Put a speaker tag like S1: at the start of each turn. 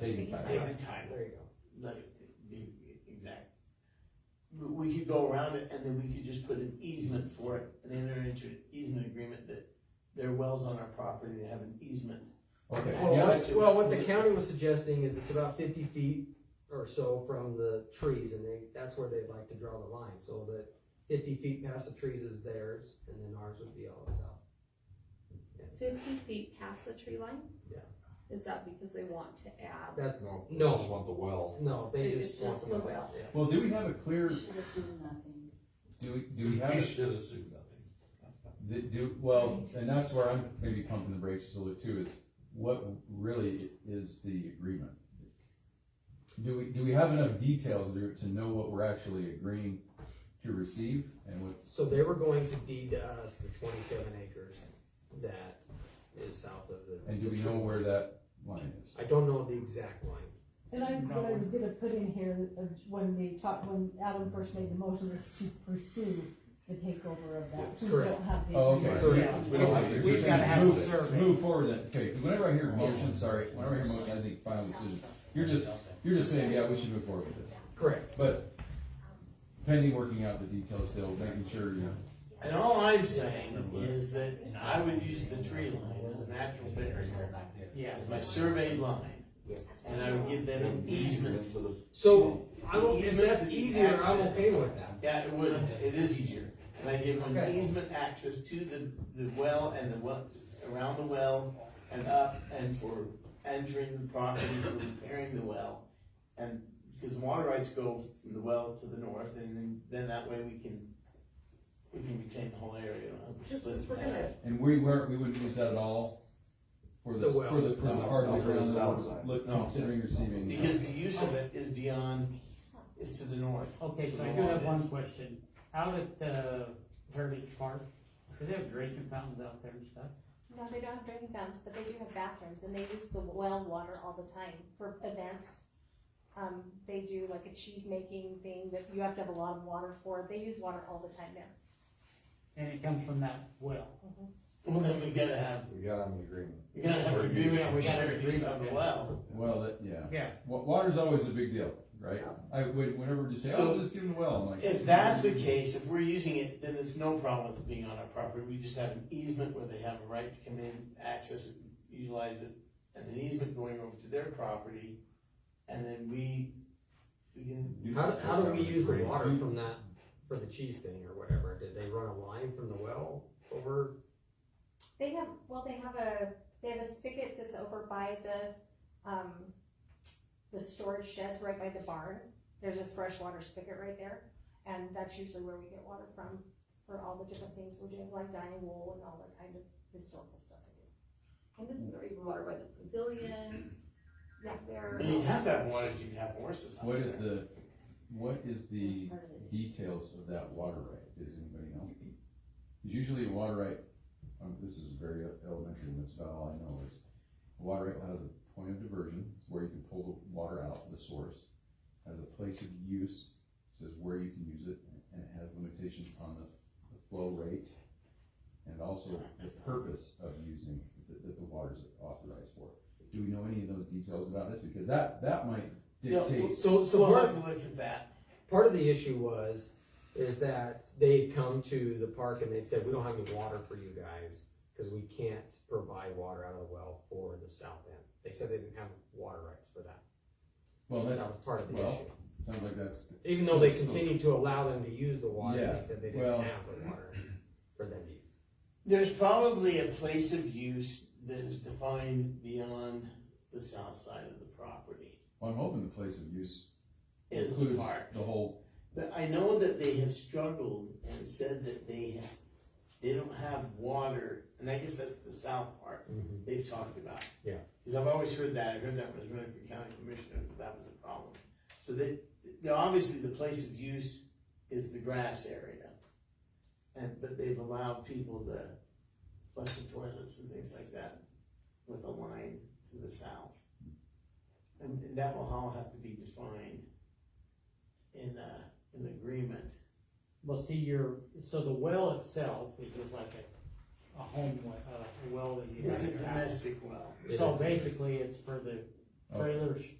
S1: Taking time.
S2: Taking time,
S3: There you go.
S2: let it be exact. We- We could go around it and then we could just put an easement for it and enter into an easement agreement that their wells on our property, they have an easement.
S1: Okay,
S2: Well,
S1: yeah,
S2: that's-
S3: Well, well, what the county was suggesting is it's about fifty feet or so from the trees, and they, that's where they'd like to draw the line, so that fifty feet past the trees is theirs, and then ours would be all the south.
S4: Fifty feet past the tree line?
S3: Yeah.
S4: Is that because they want to add?
S3: That's,
S5: No, they just
S3: no,
S5: want the well.
S3: no, they
S4: It's
S3: just want.
S4: just
S3: the
S4: the
S3: line,
S4: well.
S3: yeah.
S1: well, do we have a clear,
S6: Should have seen nothing.
S1: do we, do we have,
S2: We
S1: a-
S2: should assume nothing.
S1: do, do- well, and that's where I'm maybe pumping the brakes a little too, is what really is the agreement? Do we, do we have enough details there to know what we're actually agreeing to receive and what,
S3: So they were going to deed to us the twenty-seven acres that is south of the.
S1: and do we know where that line is?
S3: I don't know the exact line.
S7: And I, what I was gonna put in here, uh, when we talked, when Adam first made the motion, was to pursue the takeover of that,
S3: Yes,
S7: since we
S3: correct.
S7: don't have the.
S1: Oh, okay.
S3: So,
S1: So
S3: yeah.
S1: we don't have to-
S5: We've gotta have
S1: Move-
S5: a survey.
S1: Move forward then, okay, whenever I hear motion, sorry, whenever I hear motion, I think final decision, you're just, you're just saying, yeah, we should move forward with this,
S3: Correct.
S1: but pending working out the details still, making sure you're.
S2: And all I'm saying is that I would use the tree line as a natural barrier,
S5: Yeah.
S2: as my survey line. And I would give them an easement.
S3: So I'm, o- if that's easier, I'm okay with that.
S2: Yeah, it would, it is easier. And I give them
S3: Okay.
S2: easement access to the, the well and the well, around the well and up and for entering the property, for repairing the well. And, because water rights go from the well to the north and then, then that way we can, we can retain the whole area. and
S4: Since
S2: split it
S4: we're
S2: back.
S4: gonna,
S1: And we weren't, we wouldn't use that at all for the,
S3: The well.
S1: for the, for the part of
S5: No,
S1: the
S5: for the
S1: ground that
S5: south
S1: we're
S5: side.
S1: look-
S2: No.
S1: considering receiving.
S2: Because the use of it is beyond, is to the north.
S8: Okay, so I do have one question. Out at, uh, Heritage Park, do they have drinking fountains out there and stuff?
S9: No, they don't have drinking fountains, but they do have bathrooms, and they use the well water all the time for events. Um, they do like a cheese making thing that you have to have a lot of water for. They use water all the time there.
S8: And it comes from that well.
S2: Well, then we gotta have,
S5: We got an agreement.
S2: we gotta have an agreement, we gotta use of the
S8: Okay.
S2: well.
S1: Well, that, yeah.
S8: Yeah,
S1: Wa- water's always a big deal, right? I, would whenever you say,
S2: So-
S1: oh, just give them the well, I'm like.
S2: If that's the case, if we're using it, then there's no problem with it being on our property, we just have an easement where they have a right to come in, access it, utilize it, and an easement going over to their property, and then we, we can,
S3: How, do- how do we use the water from that, for the cheese thing or whatever? Did they run a line from the well over?
S9: They have well, they have a they have a spigot that's over by the um, the storage sheds right by the barn. There's a freshwater spigot right there, and that's usually where we get water from for all the different things we're doing, like dyeing wool and all that kind of historical stuff.
S4: and this is already water by the pavilion, back there.
S2: you have that water, you can have horses. out
S1: What is
S2: there.
S1: the, what is the
S6: That's part of it.
S1: details of that water right? Does anybody know? 'Cause Usually a water right, um, this is very elementary, and that's about all I know is, a water right has a point of diversion, it's where you can pull the water out, the source. Has a place of use, says where you can use it, and it has limitations on the, the flow rate. And also the purpose of using, that, that the water's authorized for. Do we know any of those details about this? Because that, that might
S2: No,
S1: dictate
S3: So, so
S2: We'll
S3: part,
S2: have to look at that,
S3: part of the issue was, is that they'd come to the park and they'd said, we don't have any water for you guys, cause we can't provide water out of the well for the south end. They said they didn't have water rights for that.
S1: Well,
S3: That
S1: that
S3: was part of the
S1: Well,
S3: issue.
S1: sounds like that's,
S3: Even though they continued to allow them to use the water,
S1: Yeah,
S3: they said they
S1: well-
S3: didn't have the water for them to use.
S2: there's probably a place of use that is defined beyond the south side of the property,
S1: well, I'm hoping the place of use
S2: is the
S1: includes
S2: park.
S1: the whole,
S2: But I know that they have struggled and said that they have, they don't have water, and I guess that's the south part they've talked about.
S3: Yeah.
S2: Cause I've always heard that, I heard that when I was running for county commissioner, that that was a problem. So they, they, obviously the place of use is the grass area. And, but they've allowed people to flush the toilets and things like that with a line to the south. And, and that will all have to be defined in, uh, an agreement.
S8: well, see, your, so the well itself is just like a, a home, we- uh, well that you
S2: It's a
S8: have.
S2: domestic well.
S8: So basically, it's for the
S1: Okay.
S8: trailers